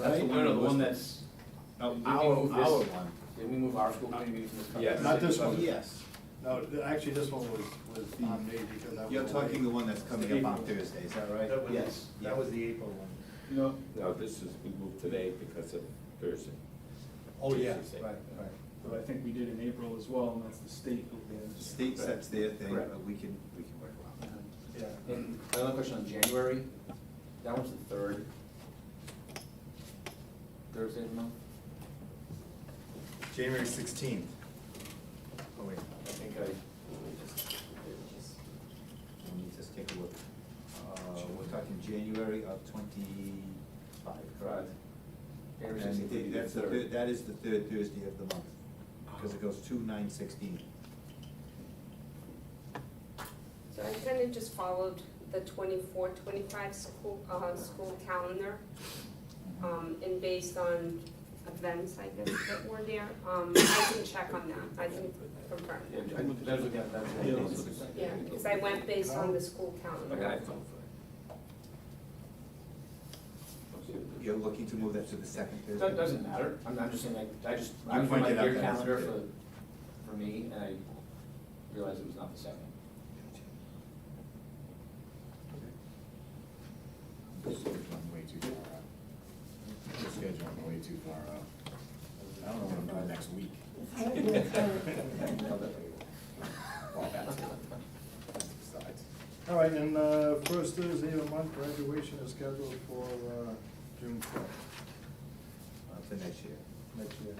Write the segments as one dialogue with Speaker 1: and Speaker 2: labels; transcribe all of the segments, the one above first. Speaker 1: That's the
Speaker 2: right?
Speaker 1: one-
Speaker 3: No, no, the one that's,
Speaker 1: No,
Speaker 3: Did we
Speaker 1: our,
Speaker 3: move this-
Speaker 1: our one.
Speaker 3: did we move our school committee meeting from this? couple
Speaker 1: Yes.
Speaker 3: of
Speaker 2: Not
Speaker 3: years?
Speaker 2: this one.
Speaker 1: Yes. Um,
Speaker 2: No, th- actually, this one was, was not made because I was.
Speaker 1: You're talking the
Speaker 2: away.
Speaker 1: one that's coming up on Thursday, is that right?
Speaker 4: That was-
Speaker 1: Yes.
Speaker 4: That was the April one.
Speaker 3: No,
Speaker 5: No, this is, we moved today because of Thursday.
Speaker 2: Oh, yeah,
Speaker 5: Tuesday.
Speaker 1: Right, right.
Speaker 6: But I think we did in April as well, and that's the state who
Speaker 1: The
Speaker 6: did.
Speaker 1: State sets their thing,
Speaker 3: Correct.
Speaker 1: but we can, we can work around that.
Speaker 2: yeah.
Speaker 3: And another question on January, that one's the third. Thursday of the month?
Speaker 1: January sixteenth. Oh, wait,
Speaker 3: I think I.
Speaker 1: let me just take a look. Uh, we're talking January of twenty-five, correct?
Speaker 3: January
Speaker 1: And
Speaker 3: 16th would be
Speaker 1: the-
Speaker 3: the
Speaker 1: that's the
Speaker 3: third.
Speaker 1: third, that is the third Thursday of the month, because it goes two nine sixteen.
Speaker 7: So I kind of just followed the 24, 25 school, uh, school calendar, um, and based on events, I guess, that were there, um, I can check on that, I can confirm.
Speaker 3: Yeah, I I was looking at that.
Speaker 6: Yeah,
Speaker 3: I think
Speaker 6: that's
Speaker 3: it's-
Speaker 7: Yeah, because I went based on the school
Speaker 5: I
Speaker 7: calendar.
Speaker 5: got it.
Speaker 1: You're looking to move that to the second Thursday?
Speaker 3: That doesn't matter, I'm, I'm just saying, like, I just, I
Speaker 1: You
Speaker 3: went by
Speaker 1: pointed out
Speaker 3: your
Speaker 1: that that's
Speaker 3: calendar
Speaker 1: okay.
Speaker 3: for, for me, and I realized it was not the second.
Speaker 4: This is one way too far out. The scheduling way too far out. I don't know what I'm doing next week. Well, that's it. Besides.
Speaker 2: All right, and, uh, first Thursday of the month, graduation is scheduled for, uh, June twelfth,
Speaker 1: Uh, for next year.
Speaker 2: next year.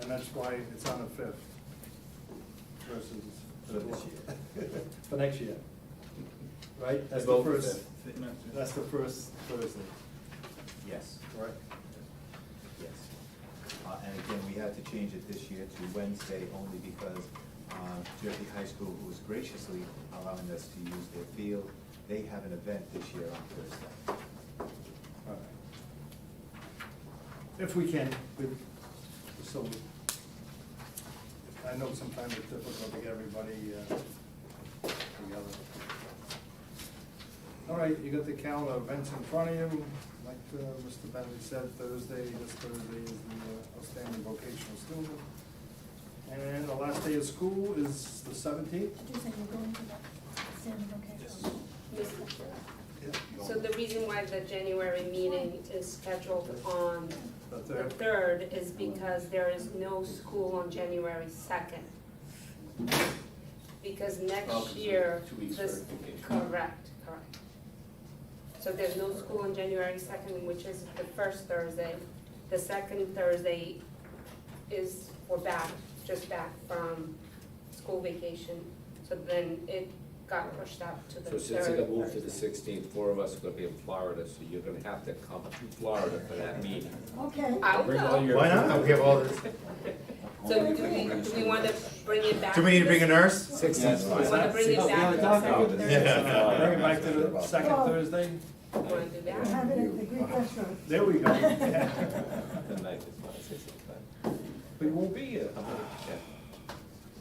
Speaker 2: And that's why it's on the fifth versus
Speaker 1: For
Speaker 2: the
Speaker 1: this
Speaker 2: twelfth.
Speaker 1: year.
Speaker 2: For next year. Right, that's the
Speaker 1: Both the
Speaker 2: first,
Speaker 1: fifth.
Speaker 2: that's the first Thursday,
Speaker 1: Yes.
Speaker 2: correct?
Speaker 1: Yes. Uh, and again, we had to change it this year to Wednesday only because, uh, Jersey High School, who is graciously allowing us to use their field, they have an event this year on Thursday.
Speaker 2: All right. If we can, we, so, I know sometimes it's difficult to get everybody uh, together. All right, you got the calendar of events in front of you. Like uh, Mr. Bentley said, Thursday, this Thursday is the uh, outstanding vocational student. And the last day of school is the seventeenth.
Speaker 8: Did you say you're going to that same location?
Speaker 7: Yes.
Speaker 2: Yeah.
Speaker 7: So the reason why the January meeting is scheduled on
Speaker 2: The
Speaker 7: the
Speaker 2: third.
Speaker 7: third is because there is no school on January second. Because
Speaker 3: Oh, 'cause
Speaker 7: next
Speaker 3: it's
Speaker 7: year,
Speaker 3: two weeks for
Speaker 7: this,
Speaker 3: vacation.
Speaker 7: correct, correct. So there's no school on January second, which is the first Thursday. The second Thursday is, we're back, just back from school vacation, so then it got pushed out to the
Speaker 5: So
Speaker 7: third
Speaker 5: since it got moved to the
Speaker 7: Thursday.
Speaker 5: sixteenth, four of us are gonna be in Florida, so you're gonna have to come to Florida for that meeting.
Speaker 8: Okay.
Speaker 7: I'll
Speaker 5: Bring all
Speaker 7: go.
Speaker 5: your-
Speaker 4: Why not? We have all this.
Speaker 7: So do we, do we wanna bring it back?
Speaker 4: Do we need to bring a
Speaker 7: this-
Speaker 4: nurse?
Speaker 5: Six
Speaker 1: Yes.
Speaker 5: is
Speaker 7: Do we
Speaker 5: fine.
Speaker 7: wanna bring it back to the second Thursday?
Speaker 4: Yeah.
Speaker 2: Bring it back to the second
Speaker 8: Well-
Speaker 2: Thursday.
Speaker 7: You wanna do that?
Speaker 8: Have it at the Greek restaurant.
Speaker 2: There we go.
Speaker 5: The ninth is fine, six is fine.
Speaker 2: We won't be here.
Speaker 5: I'm gonna check.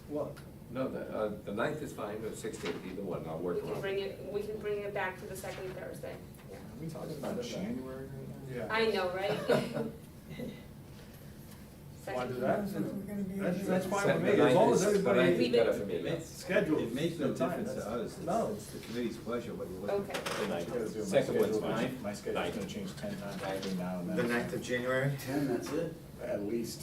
Speaker 2: What?
Speaker 5: No, the, uh, the ninth is fine, or sixteenth, either one, I'll
Speaker 7: We
Speaker 5: work
Speaker 7: can
Speaker 5: around.
Speaker 7: bring it, we can bring it back to the second Thursday. Yeah.
Speaker 4: we talking about January
Speaker 2: Yeah.
Speaker 7: I know, right?
Speaker 2: Why
Speaker 7: Second
Speaker 2: do that?
Speaker 8: We're gonna be.
Speaker 2: That's, that's fine
Speaker 5: Set-
Speaker 2: with me,
Speaker 5: the
Speaker 2: as long
Speaker 5: ninth
Speaker 2: as
Speaker 5: is- The ninth
Speaker 2: everybody
Speaker 5: is better for me, yeah.
Speaker 2: scheduled.
Speaker 1: It makes no
Speaker 2: time,
Speaker 1: difference to
Speaker 2: that's-
Speaker 1: us, it's,
Speaker 2: No,
Speaker 1: it's the committee's pleasure what you're looking
Speaker 7: Okay.
Speaker 1: for.
Speaker 4: The ninth.
Speaker 5: Second one's fine.
Speaker 4: My schedule's
Speaker 5: Ninth.
Speaker 4: gonna change ten times between now and then.
Speaker 1: The ninth of January?
Speaker 2: Ten, that's it.
Speaker 4: At least.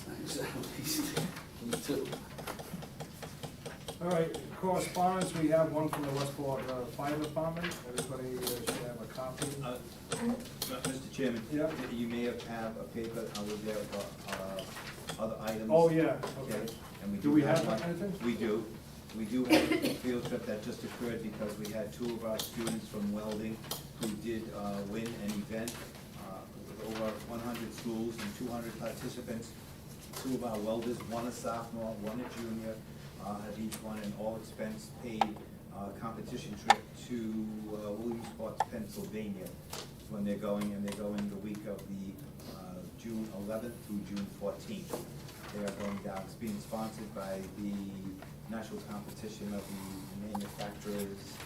Speaker 2: All right, correspondence, we have one from the Westport uh, Fire Department, everybody uh, should have a copy.
Speaker 1: Uh, Mr. Chairman?
Speaker 2: Yeah.
Speaker 1: You may have have a paper over there for, uh, other items.
Speaker 2: Oh, yeah,
Speaker 1: Okay,
Speaker 2: okay.
Speaker 1: and we
Speaker 2: Do
Speaker 1: do
Speaker 2: we
Speaker 1: have
Speaker 2: have
Speaker 1: one.
Speaker 2: that anything?
Speaker 1: We do. We do have a field trip that just occurred because we had two of our students from welding who did uh, win an event uh, with over one hundred schools and two hundred participants. Two of our welders, one a sophomore, one a junior, uh, have each won an all-expense paid uh, competition trip to uh, Williamsport, Pennsylvania. It's When they're going, and they're going the week of the uh, June eleventh through June fourteenth. They are going down, it's being sponsored by the National Competition of the Manufacturers